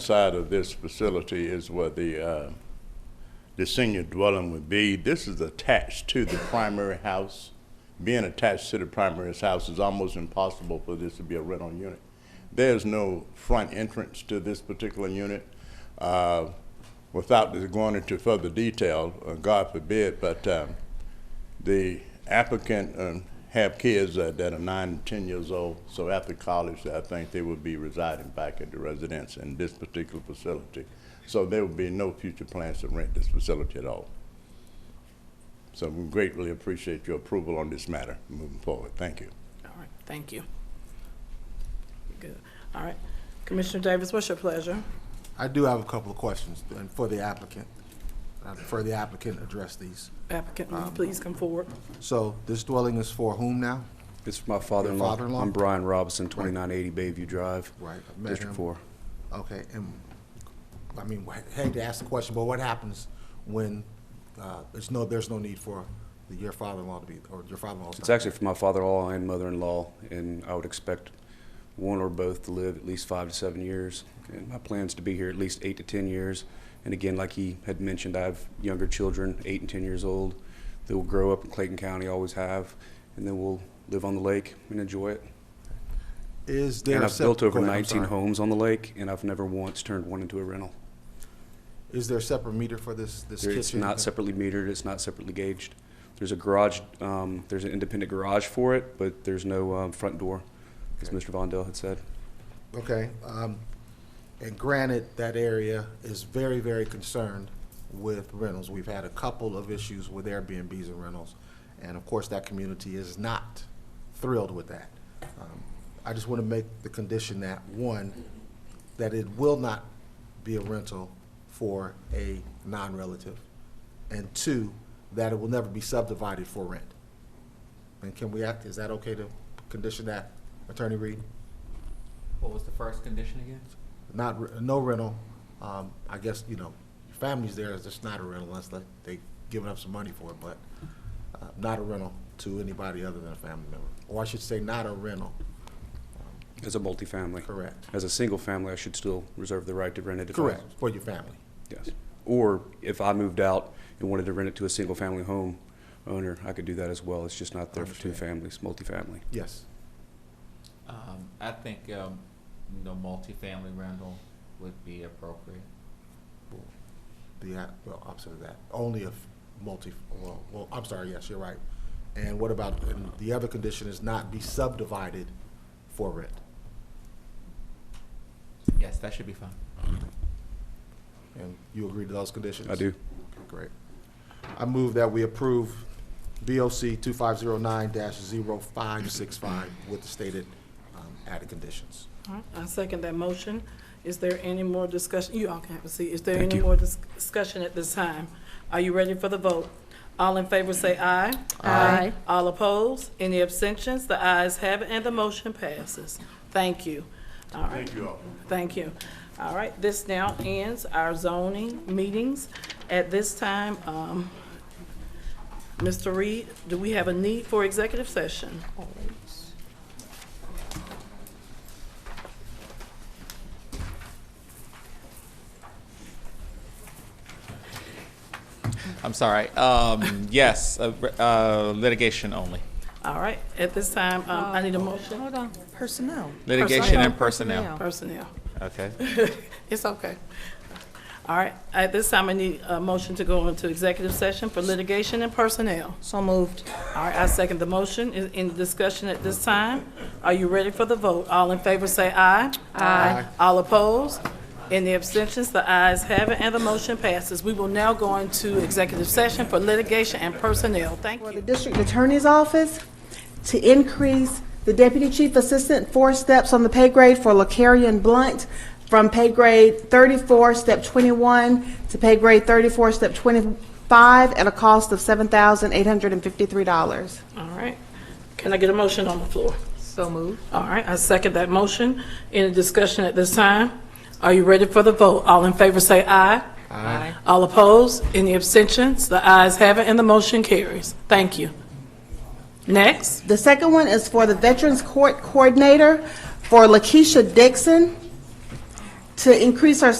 side of this facility is where the, uh, the senior dwelling would be. This is attached to the primary house. Being attached to the primary house is almost impossible for this to be a rental unit. There's no front entrance to this particular unit. Uh, Without going into further detail, uh, God forbid, but um, the applicant um, have kids uh, that are nine, and 10 years old, so after college, I think they would be residing back at the residence in this particular facility. So there would be no future plans to rent this facility at all. So we greatly appreciate your approval on this matter moving forward. Thank you. All right, thank you. Good, all right. Commissioner Davis, what's your pleasure? I do have a couple of questions and for the applicant. I prefer the applicant address these. Applicant, will you please come forward? So this dwelling is for whom now? It's for my father-in-law. father-in-law? I'm Brian Robinson, 2980 Bayview Drive. Right, I've met him. District 4. Okay, and, I mean, I hate to ask the question, but what happens when, uh, there's no, there's no need for the- your father-in-law to be, or your father-in-law's It's not- actually for my father-in-law and mother-in-law, and I would expect one or both to live at least five to seven years. And my plan's to be here at least eight to 10 years. And again, like he had mentioned, I have younger children, eight and 10 years old, that will grow up in Clayton County, always have, and then we'll live on the lake and enjoy it. Is there? a And I've sep- built over go ahead, I'm 19 sorry. homes on the lake, and I've never once turned one into a rental. Is there a separate meter for this, this kitchen? It's not separately metered, it's not separately gauged. There's a garage, um, there's an independent garage for it, but there's no, um, front door, as Mr. Vondell had said. Okay, um, and granted, that area is very, very concerned with rentals. We've had a couple of issues with Airbnbs and rentals, and of course, that community is not thrilled with that. Um, I just want to make the condition that, one, that it will not be a rental for a non-relative, and two, that it will never be subdivided for rent. And can we act, is that okay to condition that, Attorney Reed? What was the first condition again? not, re- no rental, um, I guess, you know, your family's there, it's just not a rental unless they, they giving up some money for it, but, uh, not a rental to anybody other than a family member. Or I should say, not a rental, As a multifamily. correct? As a single family, I should still reserve the right to rent it if I. Correct, for your family. Yes. Or if I moved out and wanted to rent it to a single-family home owner, I could do that as well. It's just not there for two families, multifamily. Yes, Um, I think, um, the multifamily rental would be appropriate. the, uh, well, opposite of that, only if multi, well, well, I'm sorry, yes, you're right. And what about, and the other condition is not be subdivided for rent. Yes, that should be fine. And you agree to those conditions? I do. Okay, Great. I move that we approve BOC 2509-0565 with the stated um, added conditions. All right, I second that motion. Is there any more discussion? You all can have a seat. Is there Thank any you. more dis- discussion at this time? Are you ready for the vote? All in favor say aye. Aye. All opposed? Any abstentions? The ayes have it, and the motion passes. Thank you. All right. Thank you all. Thank you. All right, this now ends our zoning meetings. At this time, um, Mr. Reed, do we have a need for executive session? I'm sorry. Um, yes, uh, re- uh, litigation only. All right, at this time, um, I need a motion. Hold on, personnel. Litigation and personnel. Personnel. Okay. It's okay. All right, at this time, I need a motion to go into executive session for litigation and personnel. So moved. All right, I second the motion. Is in discussion at this time? Are you ready for the vote? All in favor say aye. Aye. All opposed? Any abstentions? The ayes have it, and the motion passes. We will now go into executive session for litigation and personnel. Thank for you. the district attorney's office to increase the deputy chief assistant four steps on the pay grade for LaCarrion Blunt from pay grade thirty-four, step twenty-one, to pay grade thirty-four, step twenty-five, at a cost of seven thousand eight hundred and fifty-three dollars. All right. Can I get a motion on the floor? So moved. All right, I second that motion. Any discussion at this time? Are you ready for the vote? All in favor say aye. Aye. All opposed? Any abstentions? The ayes have it, and the motion carries. Thank you. Next. The second one is for the Veterans Court Coordinator for Lakeisha Dixon to increase her